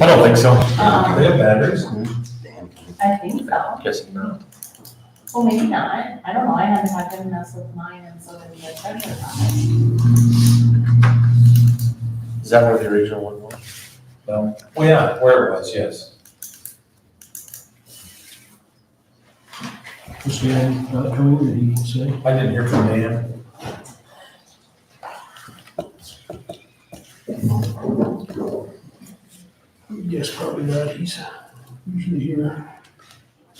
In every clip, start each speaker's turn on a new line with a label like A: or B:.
A: I don't think so.
B: Um,
C: have batteries?
B: I think so.
A: Guessing not.
B: Well, maybe not. I don't know. I haven't had them mess with mine and so did the treasure on it.
A: Is that where the original one was?
C: No. Well, Oh, yeah, where it was, yes.
D: Was Dan not coming, did he say?
C: I didn't hear from Dan.
D: Yes, probably not, he's usually here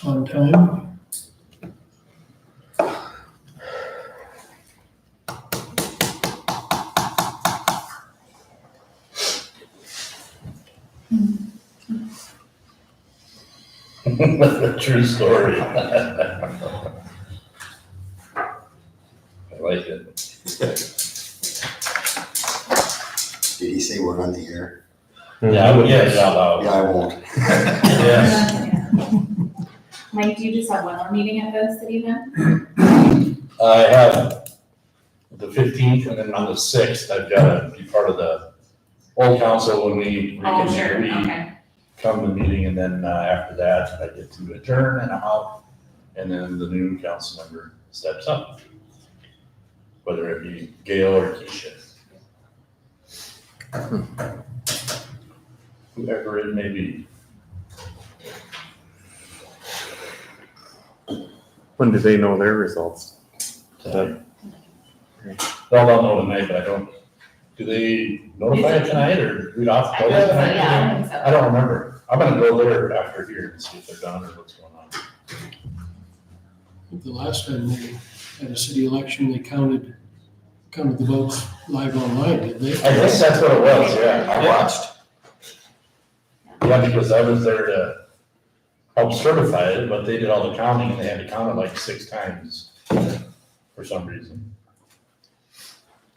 D: on time.
E: True story. I like it.
F: Did he say we're on the air?
E: Yeah, I would say
C: Yes.
E: it out
F: Yeah,
E: loud.
F: I won't.
C: Yes.
B: Mike, do you just have one more meeting at the city then?
E: I have the fifteenth and then on the sixth, I've got to be part of the old council when we.
B: Oh, sure.
E: reconvene.
B: Okay.
E: come to the meeting, and then uh, after that, I get to adjourn and I'm out, and then the new council member steps up. Whether it be Gail or Keisha. Whoever it may be.
A: When do they know their results?
E: They'll all know tonight, but I don't, do they notify it tonight, or read off?
B: I would say, yeah, I think so.
E: I don't remember. I'm gonna go there after here and see if they're done or what's going on.
D: I think The last time they had a city election, they counted, counted the votes live online, did they?
E: I guess that's what it was, yeah. I watched. Yeah, because I was there to help certify it, but they did all the counting and they had to count it like six times for some reason.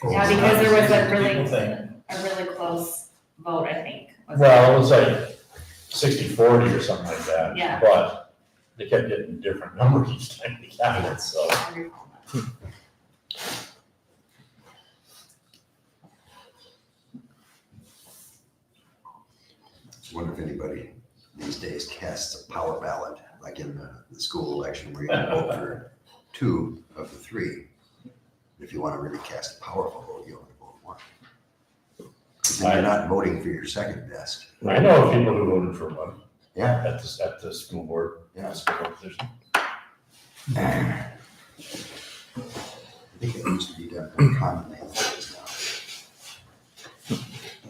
B: Yeah, because there was a
C: People think.
B: really, a really close vote, I think. was it?
E: Well, it was like sixty forty or something like that.
B: Yeah.
E: But they kept getting different numbers each time they counted, it, so.
B: I recall that.
F: Wonder if anybody these days casts a power ballot, like in the, the school election where you can vote for two of the three. If you want to really cast a powerful vote, you only vote one. 'Cause then you're not voting for your second best.
E: I know people who voted for one.
F: Yeah.
E: At the, at the school board.
F: Yeah.
E: school board position.
F: I think it used to be done more commonly than it is now.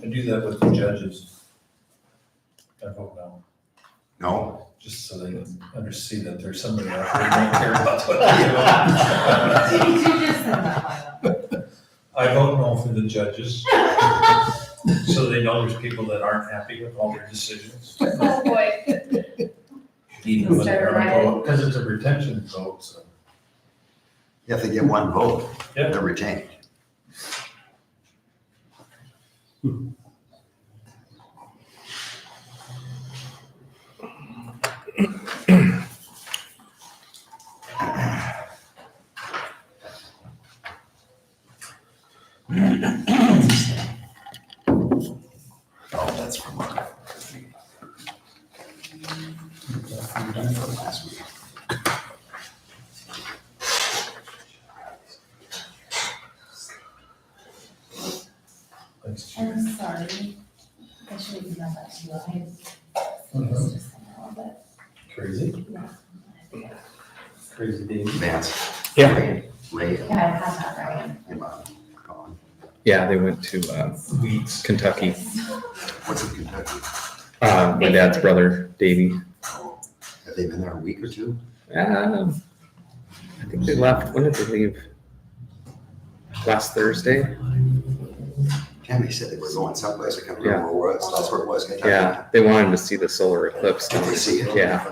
C: I do that with the judges. I vote no,
F: No,
C: just so they can under see that there's somebody out there who don't care about what I do.
B: Did you just send that one?
C: I vote no for the judges, so they know there's people that aren't happy with all their decisions.
B: Oh, boy.
C: Even when they're on
B: Start a
C: vote, because it's a retention vote, so.
F: if they get one vote,
C: Yeah.
F: they're retained. Oh, that's from our. From last week.
C: Thanks.
B: I'm sorry. I should have done that to you. I
C: Mhm.
B: was just somehow, but
C: Crazy,
B: I think I-
C: crazy Dave.
F: Vance.
A: Yeah.
F: Ray- Ray,
B: Yeah, I have that right.
F: am I calling?
G: Yeah, they went to uh, Kentucky.
F: What's in Kentucky?
G: Uh, my dad's brother, Davey.
F: Have they been there a week or two?
G: Um, I think they left. When did they leave? Last Thursday.
F: Tammy said they were going someplace. I can't remember where it was. That's where it was. Kentucky.
G: Yeah, they wanted to see the solar eclipse.
F: Did they see it?
G: Yeah,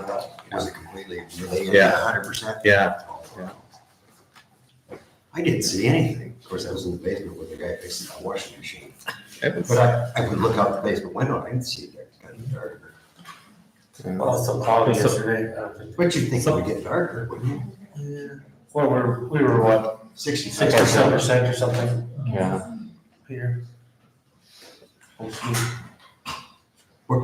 F: Was it completely related?
G: Yeah.
F: Hundred percent?
G: yeah. Yeah.
F: I didn't see anything. Of course, I was in the basement with the guy fixing my washing machine.
G: It was,
F: But I, I would look out the basement window. I didn't see it there. It got darker.
G: uh,
H: Well, so cloudy yesterday. I don't think-
F: But you'd think it would get darker, wouldn't you?
H: Well, we're, we were what,
F: Sixty-six
H: six or
F: percent.
H: percent or something
G: yeah.
H: here? Hopefully.